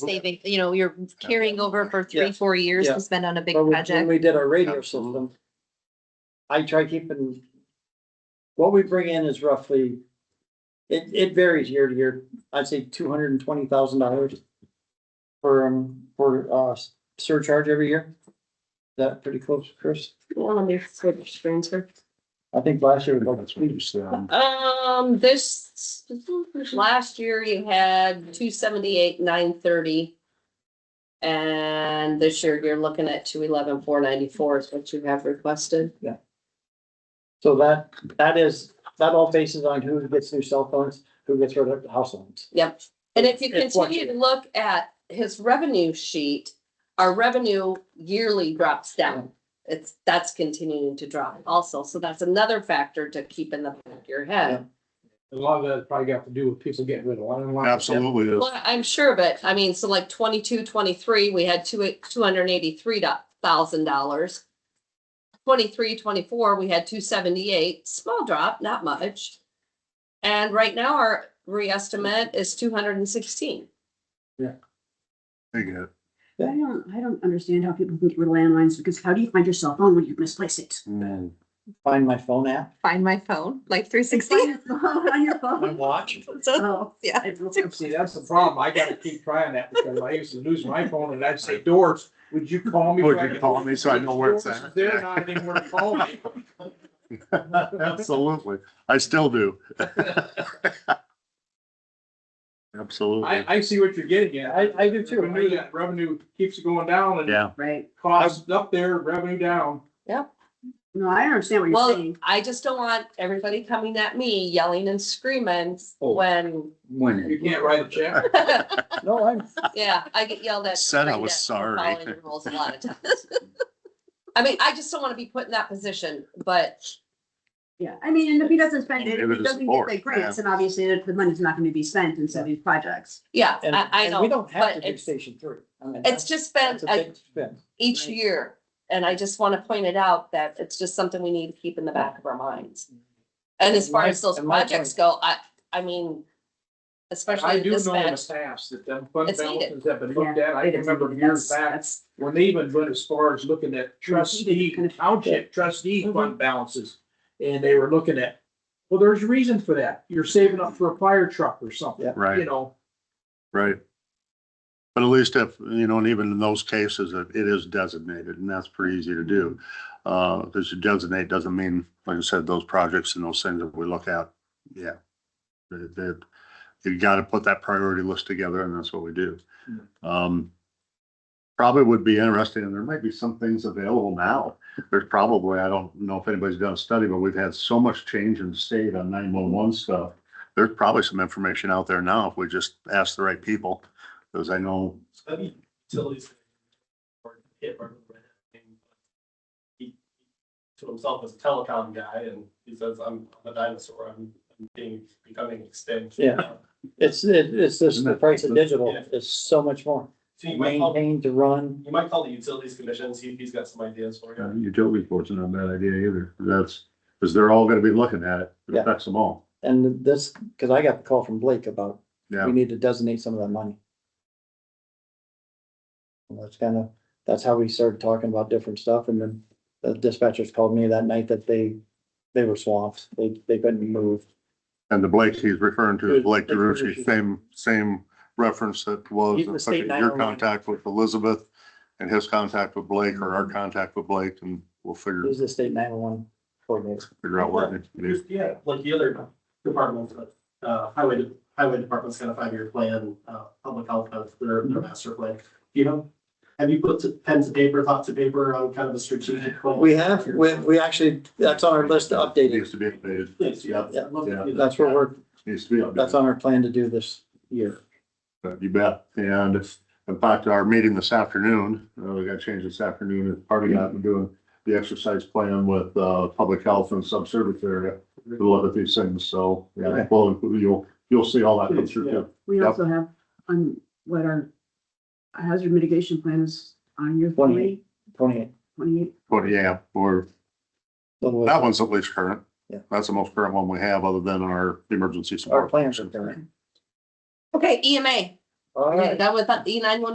saving, you know, you're carrying over for three, Yeah. four years Yeah. to spend on a big When we- When project. we did our radio system, I try keeping, what we bring in is roughly, it, it varies year to year. I'd say two hundred and twenty thousand dollars for, um, for, uh, surcharge every year. Is that pretty close, Chris? Well, let me switch transfer. I think last year was like That's what you said. Um, this, last year you had two seventy-eight, nine thirty. And this year you're looking at two eleven, four ninety-four is what you have requested. So that, that is, that all bases on who gets new cell phones, who gets rid of house phones. Yep. And if you It continue to fluctuates. look at his revenue sheet, our revenue yearly drops down. It's, that's continuing to drop also. So that's another factor to keep in the back of your head. A lot of that probably got to do with people getting rid of one and one. Absolutely is. Well, I'm sure, but I mean, so like 22, 23, we had two, two hundred and eighty-three thousand dollars. 23, 24, we had two seventy-eight, small drop, not much. And right now our reestimate is two hundred and sixteen. Big hit. I don't, I don't understand how people can get rid of landlines, because how do you find your cell phone when you misplace it? Mm. Find my phone app, Find my phone, like three On sixty. your phone, on your my phone. watch. So, Oh, yeah. I don't know. See, that's the problem. I gotta keep trying that because I used to lose my phone and I'd say, Doris, would you call me? Would so I you can- call me so I know where it's at? They're not anywhere to call me. Absolutely. I still do. Absolutely. I, I see what you're getting at. I, I do too. Revenue, that revenue keeps going down and Yeah, Right. costs up there, revenue down. No, I understand what you're Well, saying. I just don't want everybody coming at me yelling and screaming Oh. when, You can't write a check. No, I'm, yeah, I get yelled at. Said I screamed was at for sorry. following the Rules a lot of times. I mean, I just don't want to be put in that position, but Yeah, I mean, and if he doesn't spend it, if Give it he a doesn't get support, the grants, yeah. and obviously the the money's not gonna be spent in some of these projects. yeah, and, I, I and we know. don't have but to do it's- station three. I mean, It's that's- just been That's a a- big spin. each Right. year, and I just want to point it out that it's just something we need to keep in the back of our minds. And as far Mm-hmm. My- as those and my projects point- go, I, I mean, I especially do know in this batch. the past that them fund It's needed. balances have been Yeah, looked at. I It is- remember that's- years back that's- when they even went as far as looking at trustee, township trustee fund balances. And they were looking at, well, there's a reason for that. You're saving up for a fire truck or something, Yeah. right. you know? Right. But at least if, you know, and even in those cases, it it is designated and that's pretty easy to do. Uh, because you designate doesn't mean, like I said, those projects and those things that we look at, yeah. That, that- you gotta put that priority list together and that's what we do. Um, probably would be interesting, and there might be some things available now. There's probably, I don't know if anybody's done a study, but we've had so much change in the state on nine-one-one stuff there's probably some information out there now if we just ask the right people, because I know, utilities. Or hit or. He, to himself as a telecom guy and he says, I'm a dinosaur, I'm I'm being, becoming extinct. Yeah. It's, it- it's just the price of digital Yeah. is so much more. So you might call, Maintain to run. you might call the utilities commissions, he, he's got some ideas for you. utility board's not a bad idea either. That's, because they're all gonna be looking at it, it Yeah. affects them all. And this, because I got the call from Blake about, Yeah, we need to designate some of that money. And that's kind of, that's how we started talking about different stuff. And then the dispatchers called me that night that they, they were swamped. They, they couldn't move. and the Blake he's referring to is Good. Blake Blake DeRucci, DeRucci. same, same reference that He's the was state your 911. contact with Elizabeth and his contact with Blake or Mm-hmm. our contact with Blake, and we'll figure, Who's the state nine-one-one coordinator? figure out what. it is. Yeah, like the other departments, uh, highway, highway department's got a five-year plan, uh, public health has their, Mm-hmm. their master plan. You know, have you put to- pen to paper, thought to paper on kind of a strategic? plan? We have, we, we actually, that's on our list to update it. Needs to be updated, Yes, yeah. Yeah. Love to do that. That's what we're, needs to be updated. that's on our plan to do this year. But Uh, You bet. And in fact, our meeting this afternoon, uh, we got changed this afternoon, and part of that, we're doing the exercise plan with, uh, public health and subservice area to look at these things. So, yeah, Okay. well, you'll, you'll see all that come through. too. We Yep. also have on what our hazard mitigation plan is on your Twenty-eight. twenty, Twenty-eight. twenty-eight. But yeah, or little- that one's at least current. Yeah. That's the most current one we have, other than our emergency Our support. plans are there. Okay, EMA, All Are right. you done with that E nine one